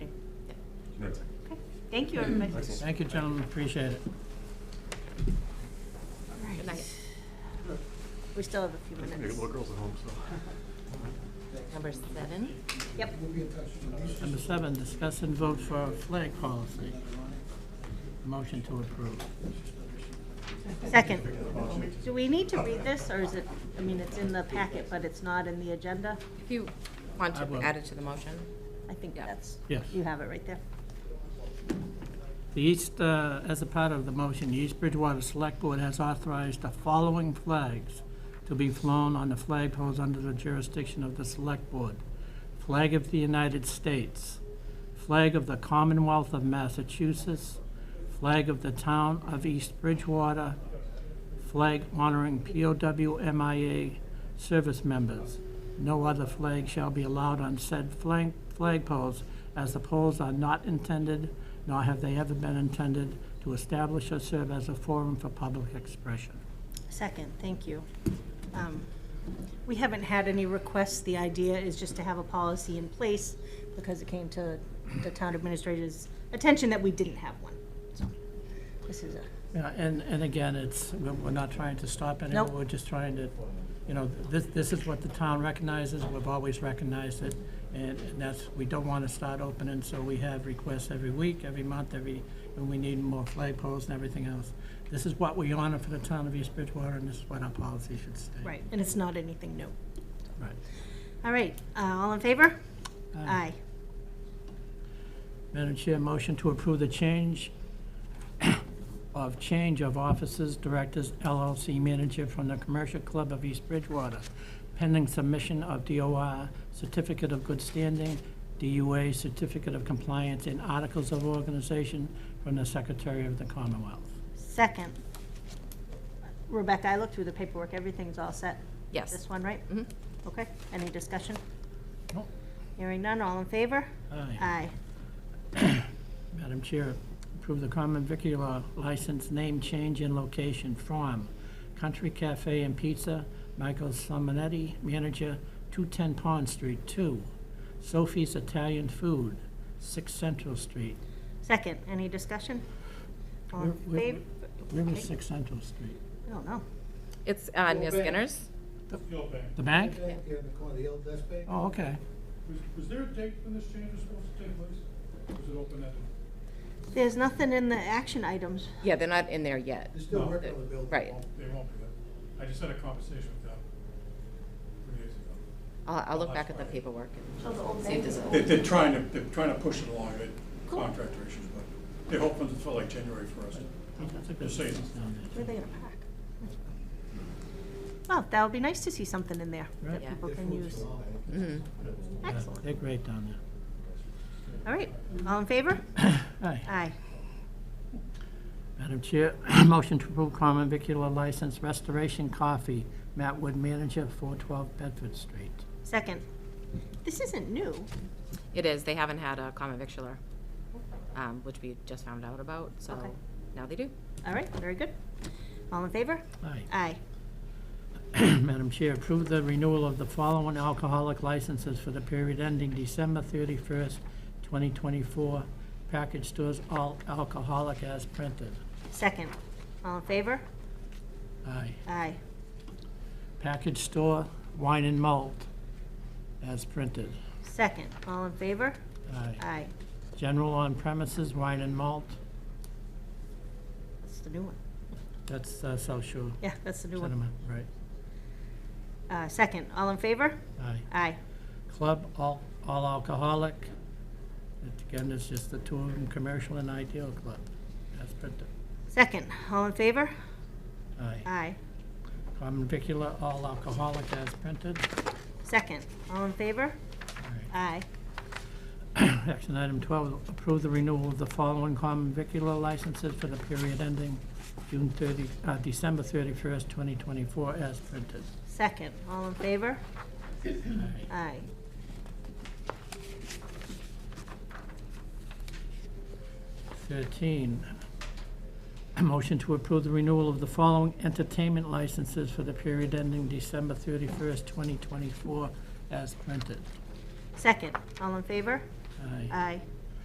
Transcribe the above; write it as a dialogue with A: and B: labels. A: Thank you, everybody.
B: Thank you, gentlemen, appreciate it.
A: Good night. We still have a few minutes. Number seven? Yep.
B: Number seven, discuss and vote for a flag policy. Motion to approve.
A: Second. Do we need to read this, or is it, I mean, it's in the packet, but it's not in the agenda?
C: If you want
B: I
C: to
B: will.
C: add it to the motion.
A: I think
C: Yeah.
A: that's,
B: Yes.
A: you have it right there.
B: The East, uh, as a part of the motion, the East Bridgewater Select Board has authorized the following flags to be flown on the flag poles under the jurisdiction of the Select Board. Flag of the United States, flag of the Commonwealth of Massachusetts, flag of the Town of East Bridgewater, flag honoring POW MIA service members. No other flag shall be allowed on said flag, flag poles, as the poles are not intended, nor have they ever been intended, to establish or serve as a forum for public expression.
A: Second, thank you. Um, We haven't had any requests. The idea is just to have a policy in place because it came to the town administrator's attention that we didn't have one. So this is a,
B: Yeah, and, and again, it's, we're we're not trying to stop anyone,
A: Nope.
B: we're just trying to, you know, this, this is what the town recognizes, we've always recognized it, and and that's, we don't want to start opening, so we have requests every week, every month, every, and we need more flagpoles and everything else. This is what we honor for the town of East Bridgewater, and this is what our policy should stay.
A: right, and it's not anything new.
B: Right.
A: All right, uh, all in favor? Aye.
B: Aye. Madam Chair, motion to approve the change of change of officers, directors, LLC manager from the Commercial Club of East Bridgewater, pending submission of DOR, certificate of good standing, DUA, certificate of compliance, and articles of organization from the Secretary of the Commonwealth.
A: Second. Rebecca, I looked through the paperwork. Everything's all set.
C: Yes.
A: This one, right?
C: Mhm.
A: Okay, any discussion?
B: Nope.
A: Hearing none, all in favor?
B: Aye.
A: Aye.
B: Madam Chair, approve the common vicular license name change in location from Country Cafe and Pizza, Michael Salmonetti, manager, 210 Pond Street, 2. Sophie's Italian Food, 6 Central Street.
A: Second, any discussion? All in
B: Where- where-
A: favor? oh,
B: Where is 6 Central Street?
A: I don't know.
C: It's uh, near
D: Well,
C: Skinner's.
D: Yo, Ben,
B: The bank?
D: back here in the corner, the old Best Bay.
B: Oh, okay.
D: Was, was there a date when this change was supposed to take place? Was it open at?
A: There's nothing in the action items.
C: Yeah, they're not in there yet.
D: They're still
C: No.
D: working on the building.
C: Right.
D: They won't be there. I just had a conversation with them three days ago.
C: I'll, I'll look back at the
D: Last Friday.
C: paperwork
A: So Oh, the old
C: and see if there's
A: bank-
C: a.
D: They, they're trying to, they're trying to push it along, they contractor issues, but they're hoping to fill like January first.
B: That's a good
D: Just saying.
B: business down there.
A: Where are they gonna park? Well, Oh, that would be nice to see something in there that
B: Right.
C: Yeah.
A: people can use.
C: Mhm.
B: Yeah,
A: Excellent.
B: They're great down there.
A: All right, all in favor?
B: Aye.
A: Aye.
B: Madam Chair, motion to approve common vicular license Restoration Coffee, Matt Wood, manager, 412 Bedford Street.
A: Second, this isn't new.
C: It is, they haven't had a common victular, um, which we just found out about, so
A: Okay.
C: now they do.
A: All right, very good. All in favor?
B: Aye.
A: Aye.
B: Madam Chair, approve the renewal of the following alcoholic licenses for the period ending December 31st, 2024. Package stores, all alcoholic as printed.
A: Second, all in favor?
B: Aye.
A: Aye.
B: Package store, wine and malt as printed.
A: Second, all in favor?
B: Aye.
A: Aye.
B: General on premises, wine and malt,
A: That's the new one.
B: that's uh, South Shore
A: Yeah, that's the new one.
B: Cinema, right.
A: Uh, second, all in favor?
B: Aye.
A: Aye.
B: Club, all, all alcoholic. Again, it's just the two of them, commercial and ideal club, as printed.
A: Second, all in favor?
B: Aye.
A: Aye.
B: Common vicular, all alcoholic as printed.
A: Second, all in favor?
B: Aye.
A: Aye.
B: Action item twelve, approve the renewal of the following common vicular licenses for the period ending June thirty, uh, December thirty-first, twenty twenty-four, as printed.
A: Second, all in favor?
B: Aye.
A: Aye.
B: Thirteen, a motion to approve the renewal of the following entertainment licenses for the period ending December thirty-first, twenty twenty-four, as printed.
A: Second, all in favor?
B: Aye.
A: Aye.